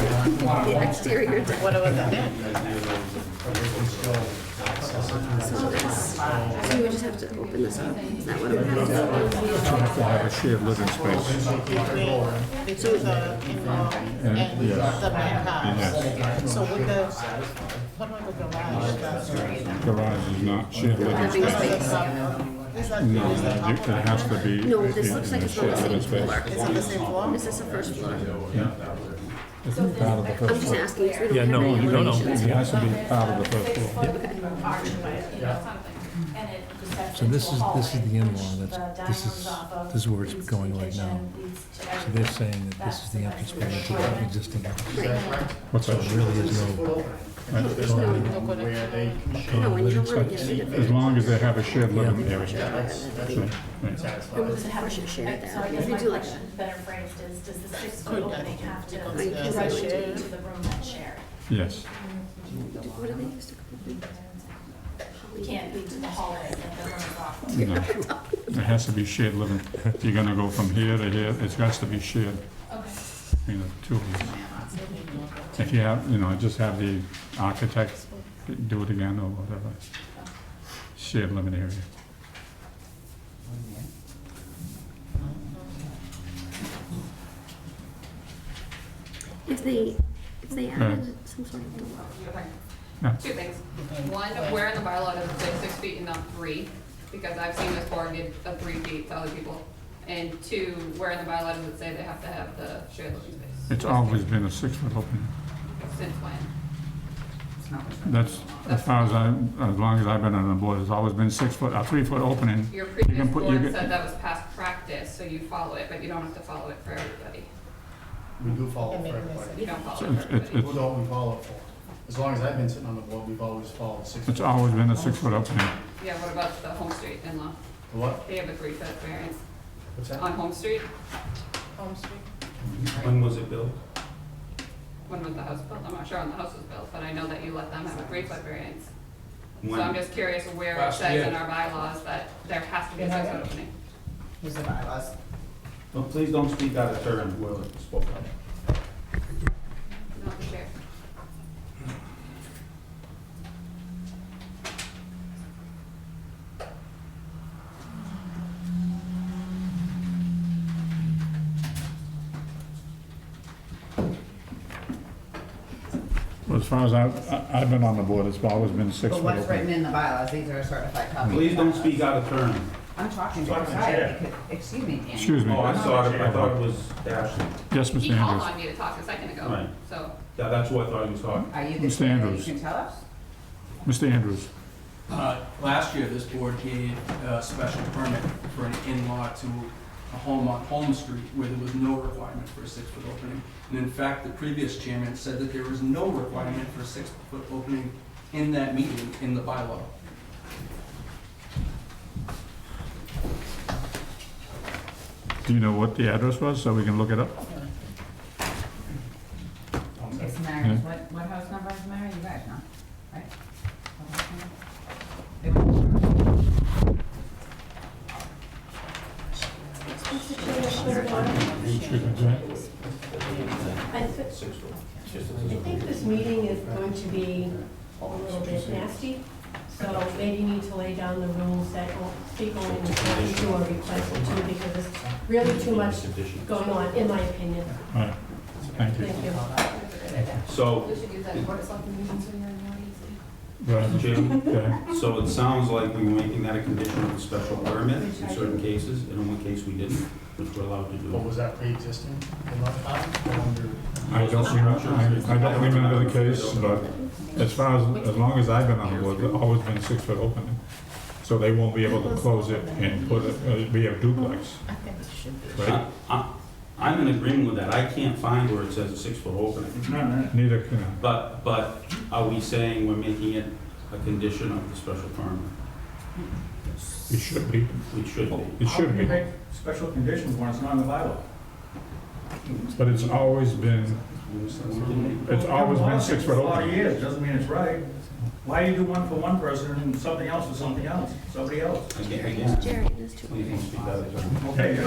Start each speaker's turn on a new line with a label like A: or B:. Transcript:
A: the exterior deck.
B: What about that?
A: So you would just have to open this up. Is that what it would have?
C: to have a shared living space.
B: Between the two, the in-law and the
C: yes.
B: main house.
C: Yes.
B: So with the, what about the garage? That's-
C: Garage is not shared living
A: Living
C: space.
A: space.
B: that's not- Is that,
C: No,
B: is that
C: it it has to be.
A: No, this
C: in-
A: looks
C: in
A: like
C: a
A: it's on the
C: shared
A: same
C: living space.
A: floor.
B: Is it the same floor?
A: This is the first floor.
C: It's not part of the
A: I'm
C: first
A: just
C: floor.
A: asking, because we
D: Yeah,
A: don't have
D: no,
A: any
D: you don't know.
A: elevations.
C: It has to be uh, part of the first floor.
E: So this is, this is the in-law, that's, this is, this is where it's going right now. So they're saying that this is the entrance way into the existing house.
A: Right.
C: What's
E: So
C: that?
E: it really is no,
B: no connection?
A: No, when you don't
C: So
A: want to get rid
C: As
A: of it.
C: long as they have a shared living area.
A: And we'll just have to share it there. If you do like that.
F: Better phrased is, does the six
B: Could
F: foot opening
B: that
F: have to
B: be considered
F: be
A: as a
F: contributed
B: shared?
F: to the room that's shared?
C: Yes.
A: What do they use to call it?
F: We can't be to the hallway that the room is off.
C: No. It has to be shared living. If you're gonna go from here to here, it has to be shared,
F: Okay.
C: you know, two of you. If you have, you know, just have the architect do it again or whatever. Shared living area.
A: If they, if they added some sort of door.
C: Yeah.
G: Two things. One, where in the bylaw does it say six feet and not three? Because I've seen this board give a three feet to other people. And two, where in the bylaw does it say they have to have the shared living space?
C: It's always been a six-foot opening.
G: Since when?
C: That's, as far as I, as long as I've been on the board, it's always been six-foot, a three-foot opening.
G: Your previous
C: can put- you
G: board
C: can-
G: said that was past practice, so you follow it, but you don't have to follow it for everybody.
H: We do follow
B: It
H: for
B: made me
H: everybody.
G: You don't follow it
C: It's-
G: for
C: it's-
G: everybody.
H: What don't we follow for? As long as I've been sitting on the board, we've always followed six.
C: It's always been a six-foot opening.
G: Yeah, what about the Home Street in-law?
H: What?
G: They have a three foot variance
H: What's
G: on
H: that?
G: Home Street.
B: Home Street?
I: When was it built?
G: When was the house built? I'm not sure when the house was built, but I know that you let them have a three foot variance. So I'm
I: When?
G: just curious where it
I: Last
G: says in
I: year.
G: our bylaws that there has to be a
B: Yeah.
G: six-foot opening.
B: Use the bylaws.
I: Well, Please don't speak out of turn, whoever spoke up.
G: Not the chair.
C: Well, As far as I've, I- I've been on the board, it's always been
J: But
C: six-foot
J: what's written
C: opening.
J: in the bylaws, these are certified copies.
I: Please don't speak out of turn.
J: I'm talking to
H: Talk
J: the
H: to the
J: side,
H: chair.
J: because, excuse me, Annie.
C: Excuse me.
I: Oh, I saw it, I thought it was Ashley.
C: Yes,
G: He
C: Mr.
G: called
C: Andrews.
G: on me to talk a second ago,
I: Right.
G: so
I: Yeah, that's who I thought you was talking.
J: Are you the
C: Mr.
J: chair, you
C: Andrews.
J: can tell us?
C: Mr. Andrews,
K: Uh, Last year, this board gave a special permit for an in-law to a home on Holmes Street where there was no requirement for a six-foot opening. And in fact, the previous chairman said that there was no requirement for a six-foot opening in that meeting in the bylaw.
C: do you know what the address was, so we can look it up?
J: It's Mary's,
I: Hmm?
J: what, what house number is Mary, you guys know, right? What house number? They were-
C: Excuse me, sir.
F: I think this meeting is going to be a little bit nasty, so maybe you need to lay down the rules that will speak only to what you are requesting to, because there's really too much going on, in my opinion.
C: All right, thank you.
F: Thank you.
I: So,
G: we should use that word, it's like the meeting, so you're in the audience.
C: Go ahead.
I: Jim,
C: Okay.
I: so it sounds like we were making that a condition of a special permit in certain cases, and in one case we didn't, which we're allowed to
H: But
I: do.
H: was that pre-existing in my time? I wonder.
C: I don't remember, I I don't remember the case, but as far as, as long as I've been on the board, it's always been six-foot opening. So they won't be able to close it and put it, uh, be a duplex,
B: I think it should be.
C: right?
I: I- I- I'm in agreement with that. I can't find where it says a six-foot opening.
C: Neither can I.
I: But, but are we saying we're making it a condition of the special permit?
C: It should be,
I: It should be.
C: it should be,
K: Special conditions when it's not in the bylaw.
C: but it's always been, it's always been six-foot opening.
K: years, doesn't mean it's right. Why do you do one for one person and something else for something else, somebody else?
I: Again, again.
A: Jerry, there's two.
I: Please don't speak out of turn.
K: Okay,